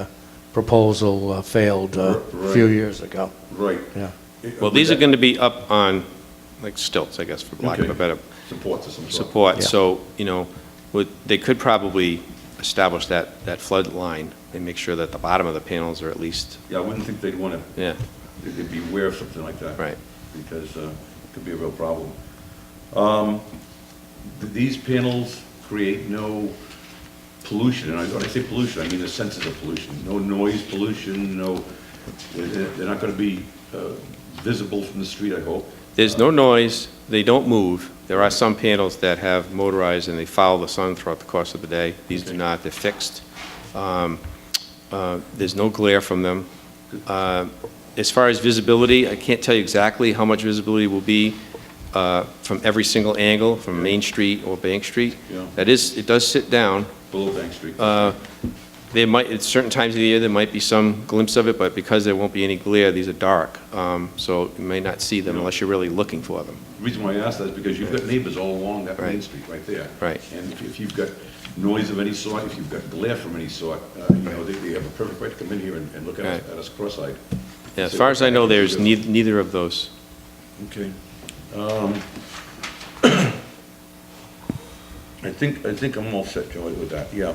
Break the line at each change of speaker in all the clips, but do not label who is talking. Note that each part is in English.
uh, proposal uh, failed uh, a few
Right.
years ago.
Right.
Yeah.
Well, these are going to be up on, like stilts, I guess, for lack of a
Okay.
better
Support to some sort.
support.
Yeah.
So, you know, would, they could probably establish that, that flood line and make sure that the bottom of the panels are at least,
Yeah, I wouldn't think they'd want to,
yeah,
they'd be aware of something like that.
Right.
Because uh, it could be a real problem. Um, th- These panels create no pollution, and I- when I say pollution, I mean the senses of pollution. No noise pollution, no, they're they're not going to be uh, visible from the street, I hope.
There's no noise, they don't move. There are some panels that have motorized and they follow the sun throughout the course of the day. These do
Okay.
not, they're fixed. Um, uh, There's no glare from them. Uh, As far as visibility, I can't tell you exactly how much visibility will be uh, from every single angle, from Main Street or Bank Street.
Yeah.
That is, it does sit down.
Below Bank Street.
There might, at certain times of the year, there might be some glimpse of it, but because there won't be any glare, these are dark. Um, So you may not see them
Yeah.
unless you're really looking for them.
The Reason why I ask that is because you've got neighbors all along that main
Right.
street right there.
Right.
And if- if you've got noise of any sort, if you've got glare from any sort, uh, you know, they, they have a perfect right to come in here and, and look at us,
Right.
at us cross-eyed.
Yeah, as far as I know, there's
neither.
neith- neither of those.
Okay. Um, I think, I think I'm all set, Joey, with that, yeah.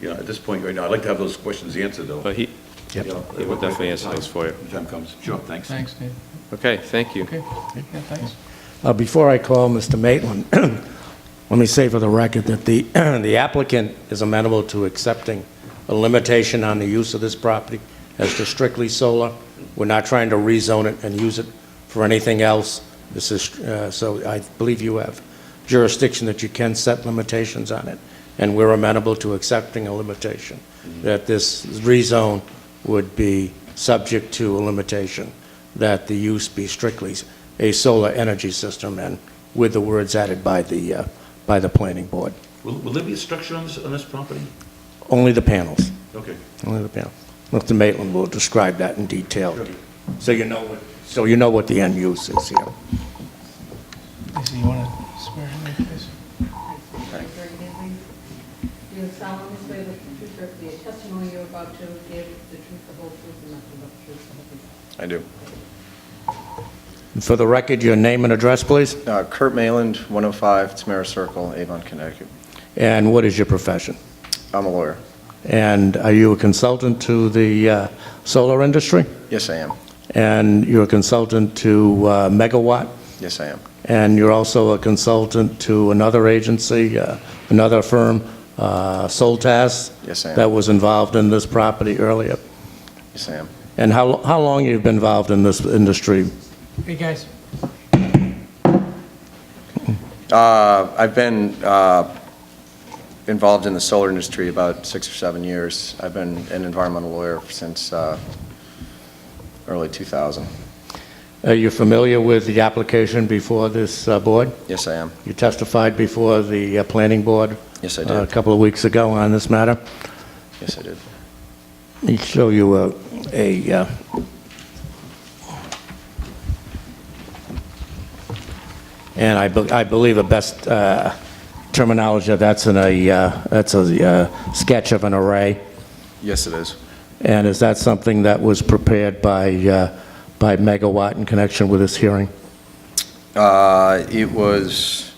Yeah, at this point right now, I'd like to have those questions answered, though.
But he,
Yep.
Yeah,
he will definitely answer those for you.
When the Time comes, sure, thanks.
Thanks, Dave.
Okay, thank you.
Okay, yeah, thanks.
Uh, Before I call Mr. Maitland, let me say for the record that the the applicant is amenable to accepting a limitation on the use of this property as to strictly solar. We're not trying to rezone it and use it for anything else. This is, uh, so I believe you have jurisdiction that you can set limitations on it, and we're amenable to accepting a limitation, that this rezone would be subject to a limitation, that the use be strictly a solar energy system, and with the words added by the, uh, by the planning board.
Will, will there be a structure on this, on this property?
Only the panels,
Okay.
only the panels. Mr. Maitland will describe that in detail,
Sure.
so you know what, so you know what the end use is here.
Lisa, you want to swear in there, please?
You solemnly swear that the truth, or the testimony you're about to give, the truth, the whole truth, and nothing but the truth, so help you God.
I do.
And For the record, your name and address, please,
Uh, Kurt Mayland, 105 Tamara Circle, Avon, Connecticut.
and what is your profession?
I'm a lawyer.
And are you a consultant to the uh, solar industry?
Yes, I am.
And you're a consultant to uh, Megawatt?
Yes, I am.
And you're also a consultant to another agency, uh, another firm, uh, Soltas?
Yes, I am.
That was involved in this property earlier?
Yes, I am.
And how how long you've been involved in this industry?
Hey, guys.
Uh, I've been uh, involved in the solar industry about six or seven years. I've been an environmental lawyer since uh, early 2000.
Are you familiar with the application before this uh, board?
Yes, I am.
You testified before the uh, planning board?
Yes, I
uh, A
did.
couple of weeks ago on this matter?
Yes, I did.
Let me show you a, a, uh, and I, be- I believe the best uh, terminology, that's in a, uh, that's a uh, sketch of an array.
Yes, it is.
And is that something that was prepared by, uh, by Megawatt in connection with this hearing?
Uh, It was,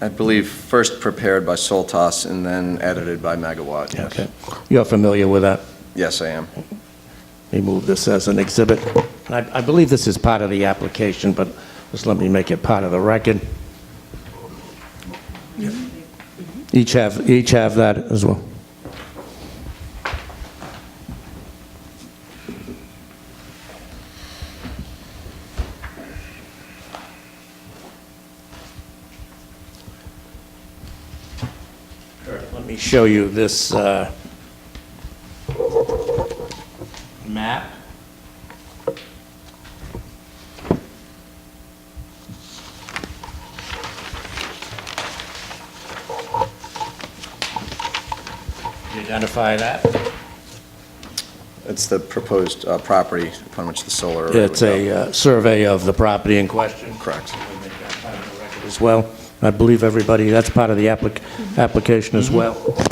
I believe, first prepared by Soltas and then edited by Megawatt. yes.
Okay. You're familiar with that?
Yes, I am.
Let me move this as an exhibit. And I, I believe this is part of the application, but just let me make it part of the record. Each have, each have that as well. Let me show you this, uh, map. You Identify that.
It's the proposed uh, property upon which the solar array would
It's a
go.
uh, survey of the property in question.
Correct.
As well. I believe everybody, that's part of the applic- application as well.